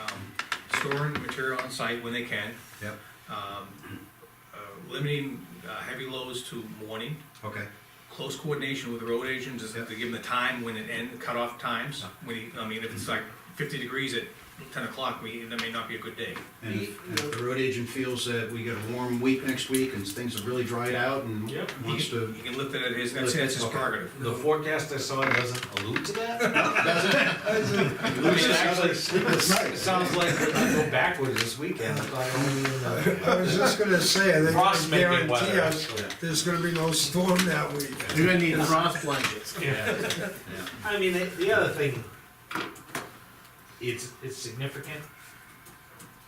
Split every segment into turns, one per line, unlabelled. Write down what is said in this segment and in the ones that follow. um, storing material on site when they can,
Yep,
um, uh, limiting uh, heavy loads to morning,
okay,
close coordination with the road agents, is to
Yep.
give them the time when it end, cutoff times, when he, I mean, if it's like fifty degrees at ten o'clock, we, that may not be a good day.
and if, and if the road agent feels that we get a warm week next week and things have really dried out and
Yep.
He
wants
can,
to.
he can lift it at his, that's, that's his
Okay.
prerogative.
The forecast I saw doesn't allude to that.
Lose his-
actually-
Sleepless
It
nights.
sounds like we could go backwards this weekend. I thought only in
I was just gonna say, I think
Frost
I
may be
guarantee
weather.
us, there's gonna be no storm that week.
You're gonna need frost blankets.
Yeah.
Yeah.
I mean, the- the other thing, it's, it's significant,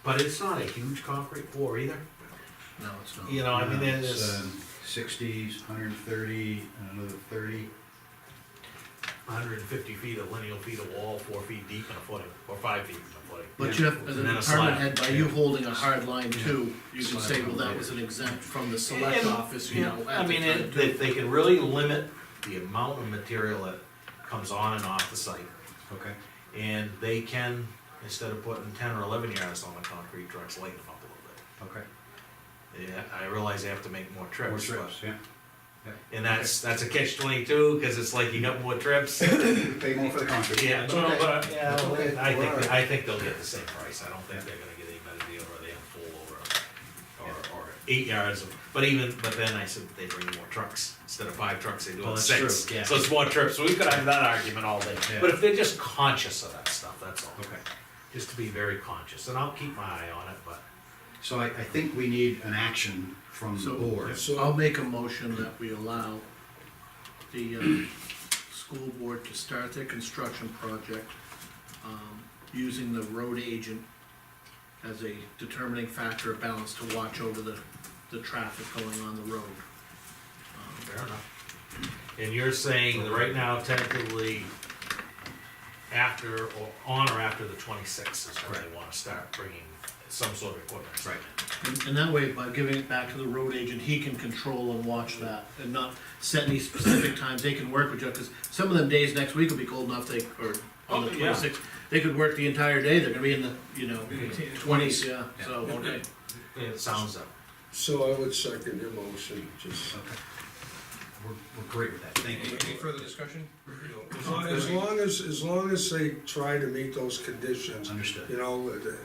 but it's not a huge concrete pour either.
No, it's not.
You know, I mean,
Yeah, it's,
uh,
there's
um, Sixty, hundred and thirty, and another thirty,
hundred and fifty feet of lineal feet of wall, four feet deep and a footing, or five feet and a footing.
But you have, as an
And then a
department
slab,
head, by
yeah.
you holding a hard line too, you can
Slab
say,
on
well, that
later.
was an exempt from the select
And-
office, you know,
I
at the
mean,
time.
it- if they can really limit the amount of material that comes on and off the site,
okay,
and they can, instead of putting ten or eleven yards on the concrete trucks, lighten them up a little bit.
okay.
Yeah, I realize they have to make more
More
trips, but,
trips, yeah.
and that's, that's a catch twenty-two, cause it's like you got more trips.
Pay more for the concrete.
Yeah, no,
Okay.
but, uh, yeah,
Okay.
I think,
Alright.
I think they'll get the same price, I don't think they're gonna get any better deal or they have full over. Or, or eight yards of, but even, but then I said they bring more trucks, instead of five trucks, they do
Well, that's
it six.
true, yeah.
So it's more trips, we could have that argument all day,
Yeah.
but if they're just conscious of that stuff, that's all.
Okay,
Just to be very conscious, and I'll keep my eye on it, but.
so I, I think we need an action from the
So,
board.
so I'll make a motion that we allow the, um, school board to start their construction project, um, using the road agent as a determining factor of balance to watch over the, the traffic going on the road. Um,
Fair enough. And you're saying that right now technically after, or on or after the twenty-sixth is when they wanna start bringing some sort of equipment.
Right.
And, and that way, by giving it back to the road agent, he can control and watch that, and not set any specific times, they can work with you, cause some of them days next week will be cold enough, they, or on the
Oh, yeah.
twenty-sixth, they could work the entire day, they're gonna be in the, you know, twenties, yeah, so, okay.
It sounds up.
So I would second your motion, just.
Okay. We're, we're great with that, thank
Any,
you.
any further discussion?
As long as, as long as they try to meet those conditions, you
Understood.
know, the-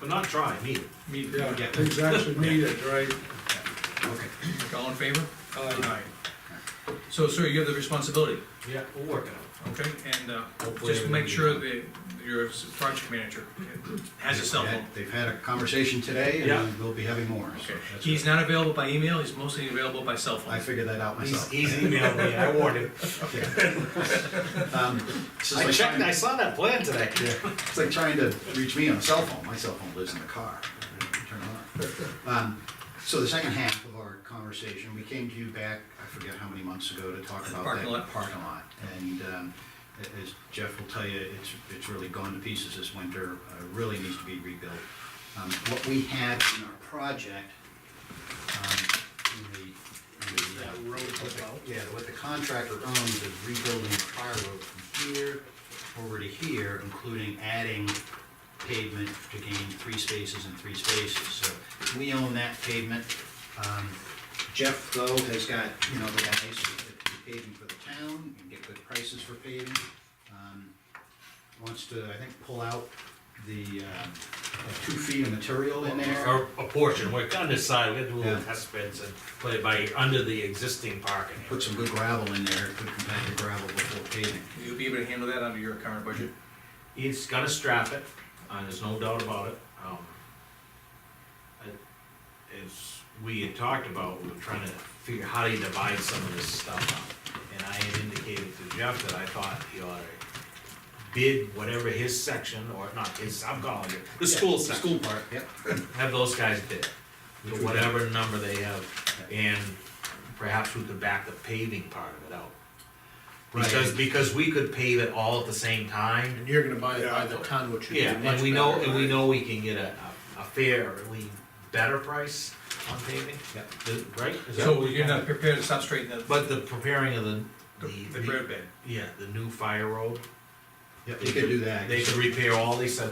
But not trying either.
Me,
yeah, things actually needed, right?
Okay,
all in favor?
Uh,
So, sir, you have the responsibility,
Yeah, we'll work it out.
okay, and, uh,
Hopefully
just make sure
everything-
that your project manager has a cell
They've
phone.
had- They've had a conversation today,
Yeah.
and we'll be having more, so
Okay,
that's
he's
good.
not available by email, he's mostly available by cell
I
phone.
figured that out
He's,
myself.
he's emailed me, I warned him.
Yeah. Um, this is
I
like
checked, I
trying-
saw that plan today.
Yeah, it's like trying to reach me on a cell phone, my cell phone lives in the car. Turn it on. Um, So the second half of our conversation, we came to you back, I forget how many months ago, to talk about
Parking
that
lot.
parking lot. And um, a- as Jeff will tell you, it's, it's really gone to pieces this winter, uh, really needs to be rebuilt. Um, What we have in our project, um, in the, in the, uh,
That road about,
yeah, what the contractor owns is rebuilding the fire road from here over to here, including adding pavement to gain three spaces and three spaces. So we own that pavement. Um, Jeff, though, has got, you know, the guys that do paving for the town and get good prices for paving. Um, Wants to, I think, pull out the um, two feet of material in there.
Or a portion, we're gonna decide, we're gonna do little
Yeah.
test bits and play it by, under the existing parking. area.
Put some good gravel in there, good compacted gravel before paving.
You'll be able to handle that under your current budget?
He's gonna strap it, uh, there's no doubt about it. Um, I- As we had talked about, we were trying to figure how do you divide some of this stuff up. And I had indicated to Jeff that I thought he ought to bid whatever his section, or not his, I'm calling it, the school
The School
section
part, yep.
have those guys bid,
Which we
to whatever number they have, and perhaps we could back the paving part of it out.
Right.
Because, because we could pave it all at the same time,
and you're gonna buy it by the ton, which would be
yeah,
much better.
and we know, and we know we can get a, a a fair, or at least better price on paving,
Yep.
The- right? Is that
So
what we
you're not
kinda-
prepared to substrate the,
But the preparing of the,
the
the,
road bed?
yeah, the new fire road.
Yep, you could do that.
They could repair all these, uh,